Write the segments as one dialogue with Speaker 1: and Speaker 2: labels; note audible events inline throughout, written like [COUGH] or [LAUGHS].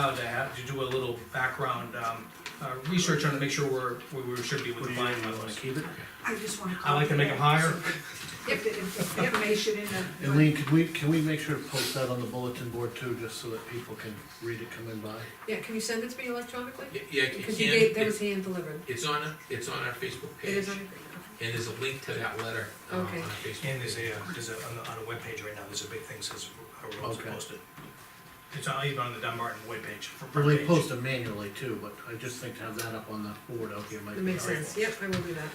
Speaker 1: allowed to have, to do a little background, um, uh, research on to make sure we're, we- we should be
Speaker 2: What
Speaker 1: with
Speaker 2: do
Speaker 1: the
Speaker 2: you
Speaker 1: fine
Speaker 2: think, you wanna
Speaker 1: levels.
Speaker 2: keep it?
Speaker 3: I just wanna.
Speaker 1: I like to make them higher.
Speaker 3: If, the- if the information in the.
Speaker 4: And Lean, can we, can we make sure to post that on the bulletin board too, just so that people can read it coming by?
Speaker 5: Yeah, can you send it to me electronically?
Speaker 6: Y- Yeah, you
Speaker 5: Because you gave, that
Speaker 6: can,
Speaker 5: was hand delivered.
Speaker 6: it's on, a- it's on our Facebook
Speaker 5: It
Speaker 6: page,
Speaker 5: is on
Speaker 6: and
Speaker 5: your.
Speaker 6: there's a link to that letter uh, on our
Speaker 5: Okay.
Speaker 6: Facebook.
Speaker 1: And there's a, uh, there's a, on the, on the webpage right now, there's a big thing that says our roads are
Speaker 4: Okay.
Speaker 1: posted. It's on, even on the Dunbarton webpage, front
Speaker 4: Or they
Speaker 1: page.
Speaker 4: post them manually too, but I just think to have that up on the board out here might
Speaker 5: That
Speaker 4: be
Speaker 5: makes
Speaker 4: helpful.
Speaker 5: sense, yep, I will do that.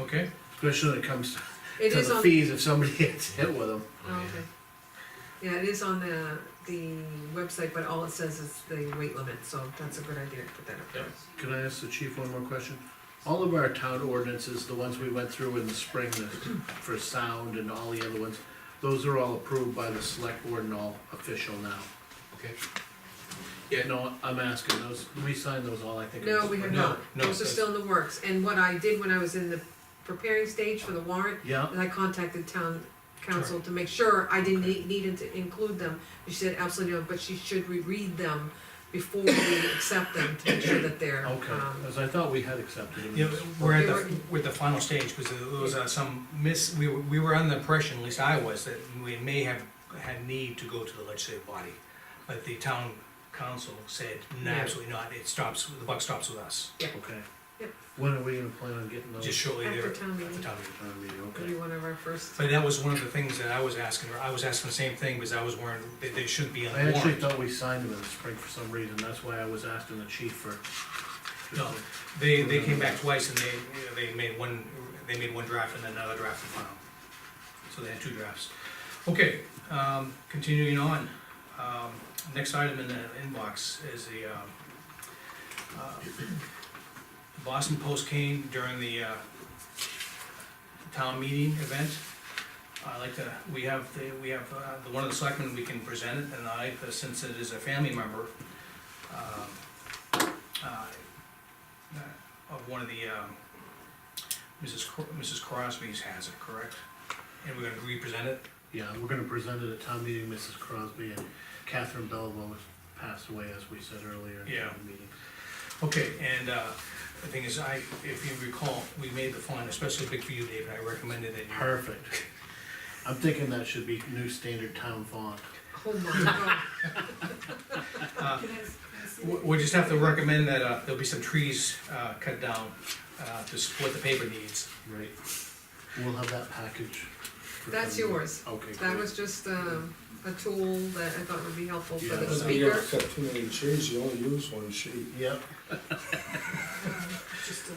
Speaker 1: Okay,
Speaker 4: Especially when it comes to
Speaker 5: It is
Speaker 4: the
Speaker 5: on,
Speaker 4: fees, if somebody [LAUGHS] gets hit with them.
Speaker 6: Oh,
Speaker 5: oh, okay. Yeah, it is on the, the website, but all it says is the weight limit, so that's a good idea to put that up there.
Speaker 4: Can I ask the chief one more question? All of our town ordinances, the ones we went through in the spring, the, for sound and all the other ones, those are all approved by the select board and all official now.
Speaker 6: Okay,
Speaker 4: No, I'm asking those, we signed those all, I think. in the
Speaker 5: No, we have
Speaker 4: spring.
Speaker 5: not,
Speaker 1: no,
Speaker 5: those are
Speaker 1: that's-
Speaker 5: still in the works, and what I did when I was in the preparing stage for the warrant,
Speaker 4: Yeah,
Speaker 5: is I contacted town council to make sure I didn't need, needed to include them. She said absolutely no, but she should reread them before we accept them, to make sure that they're,
Speaker 4: okay,
Speaker 5: um,
Speaker 4: as I thought we had accepted them.
Speaker 1: yeah, we're at the, we're at the final stage, because there was uh, some miss, we were, we were under the impression, at least I was, that we may have had need to go to the legislative body. But the town council said, no,
Speaker 5: Yeah.
Speaker 1: absolutely not, it stops, the buck stops with us,
Speaker 4: Okay.
Speaker 5: Yep.
Speaker 4: When are we gonna plan on getting those?
Speaker 1: just shortly there.
Speaker 5: After town meeting.
Speaker 1: After town meeting.
Speaker 4: Town meeting,
Speaker 5: Maybe
Speaker 4: okay.
Speaker 5: one of our first,
Speaker 1: But that was one of the things that I was asking her, I was asking the same thing, because I was worried that they should be on
Speaker 4: I
Speaker 1: the
Speaker 4: actually
Speaker 1: warrant.
Speaker 4: thought we signed them in the spring for some reason, that's why I was asking the chief for.
Speaker 1: No. They, they came back twice and they, they made one, they made one draft and then another draft and final. So they had two drafts. Okay, um, continuing on, um, next item in the inbox is the, um, uh, Boston Post came during the, uh, town meeting event. I like to, we have, the we have, uh, the one of the selectmen, we can present it, and I, like to- since it is a family member, um, uh, of one of the, um, Mrs. Cro- Mrs. Crosby's has it, correct? And we're gonna represent it?
Speaker 4: Yeah, we're gonna present it at town meeting, Mrs. Crosby and Catherine Belleville has passed away, as we said earlier in
Speaker 1: Yeah.
Speaker 4: the meeting.
Speaker 1: Okay, and, uh, the thing is, I, if you recall, we made the font especially big for you, David, I recommended that you.
Speaker 4: Perfect. I'm thinking that should be new standard town font.
Speaker 5: oh my god.
Speaker 4: [LAUGHS]
Speaker 3: Can
Speaker 4: Uh,
Speaker 3: I- can I see
Speaker 1: We,
Speaker 3: that?
Speaker 1: we just have to recommend that, uh, there'll be some trees, uh, cut down, uh, to support the paper needs.
Speaker 4: Right. We'll have that package. for
Speaker 5: That's
Speaker 4: town meeting.
Speaker 5: yours.
Speaker 4: Okay.
Speaker 5: That
Speaker 4: great.
Speaker 5: was just, um, a tool that I thought would be helpful for
Speaker 4: Yeah.
Speaker 5: the
Speaker 7: You
Speaker 5: speaker.
Speaker 7: don't cut too many trees, you only use one sheet.
Speaker 4: Yep,
Speaker 3: Just a-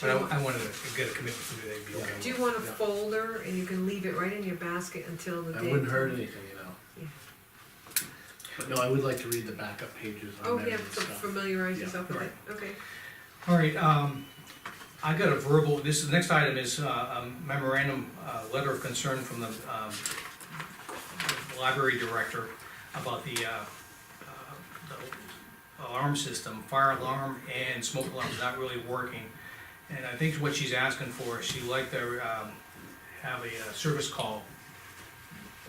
Speaker 1: But I, I wanted to get a commitment from you, that'd be okay.
Speaker 5: Do you want a
Speaker 4: Yeah.
Speaker 5: folder and you can leave it right in your basket until the
Speaker 4: that
Speaker 5: day?
Speaker 4: wouldn't hurt anything, you know.
Speaker 5: Yeah.
Speaker 4: But no, I would like to read the backup pages
Speaker 5: Oh,
Speaker 4: on there
Speaker 5: yeah,
Speaker 4: and
Speaker 5: so
Speaker 4: stuff.
Speaker 5: familiarize
Speaker 4: uh, Yeah,
Speaker 5: yourself with it, okay.
Speaker 1: All right, um, I got a verbal, this, the next item is uh, a memorandum, uh, letter of concern from the, um, library director about the, uh, uh, the alarm system, fire alarm and smoke alarm is not really working. And I think what she's asking for, she'd like to, um, have a uh, service call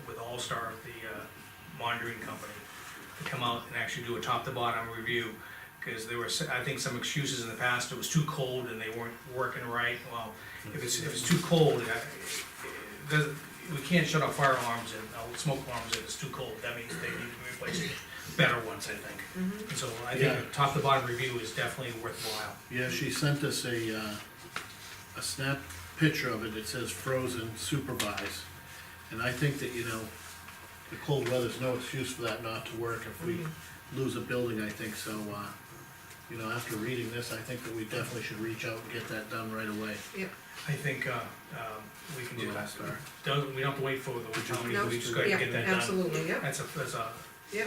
Speaker 1: with All-Star, the, uh, monitoring company, to come out and actually do a top-to-bottom review because there were, s- I think, some excuses in the past, it was too cold and they weren't working right, well, if it's, if it's too cold, uh, it doesn't, we can't shut off fire alarms and, uh, smoke alarms if it's too cold, that means they need to replace better ones, I think. And so I think
Speaker 4: Yeah.
Speaker 1: a top to bottom review is definitely worthwhile.
Speaker 4: Yeah, she sent us a, uh, a snap picture of it, it says frozen, supervise. And I think that, you know, the cold weather's no excuse for that not to work if we
Speaker 5: Mm-hmm.
Speaker 4: lose a building, I think, so, uh, you know, after reading this, I think that we definitely should reach out and get that done right away.
Speaker 1: I think, uh, um, we can do
Speaker 4: With
Speaker 1: that.
Speaker 4: All-Star.
Speaker 1: Don't, we don't have to wait for the town meeting,
Speaker 5: No,
Speaker 1: we just gotta
Speaker 5: Yeah,
Speaker 1: get that done.
Speaker 5: absolutely, yeah,
Speaker 1: That's a, that's a,
Speaker 5: yeah.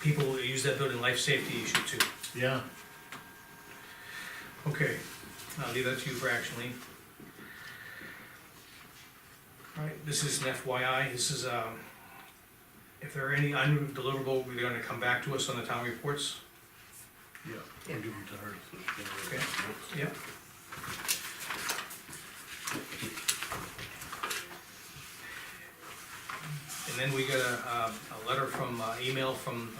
Speaker 1: people who use that building, life safety issue too.
Speaker 4: Yeah,
Speaker 1: Okay, I'll leave that to you for action, Lean. Alright, this is an FYI, this is, um, if there are any undeliverable, they're gonna come back to us on the town reports.
Speaker 4: yeah,
Speaker 5: Yeah.
Speaker 4: we'll give them to her. so she can read
Speaker 1: Okay.
Speaker 4: it.
Speaker 1: Yep. And then we got a, uh, a letter from, uh, email from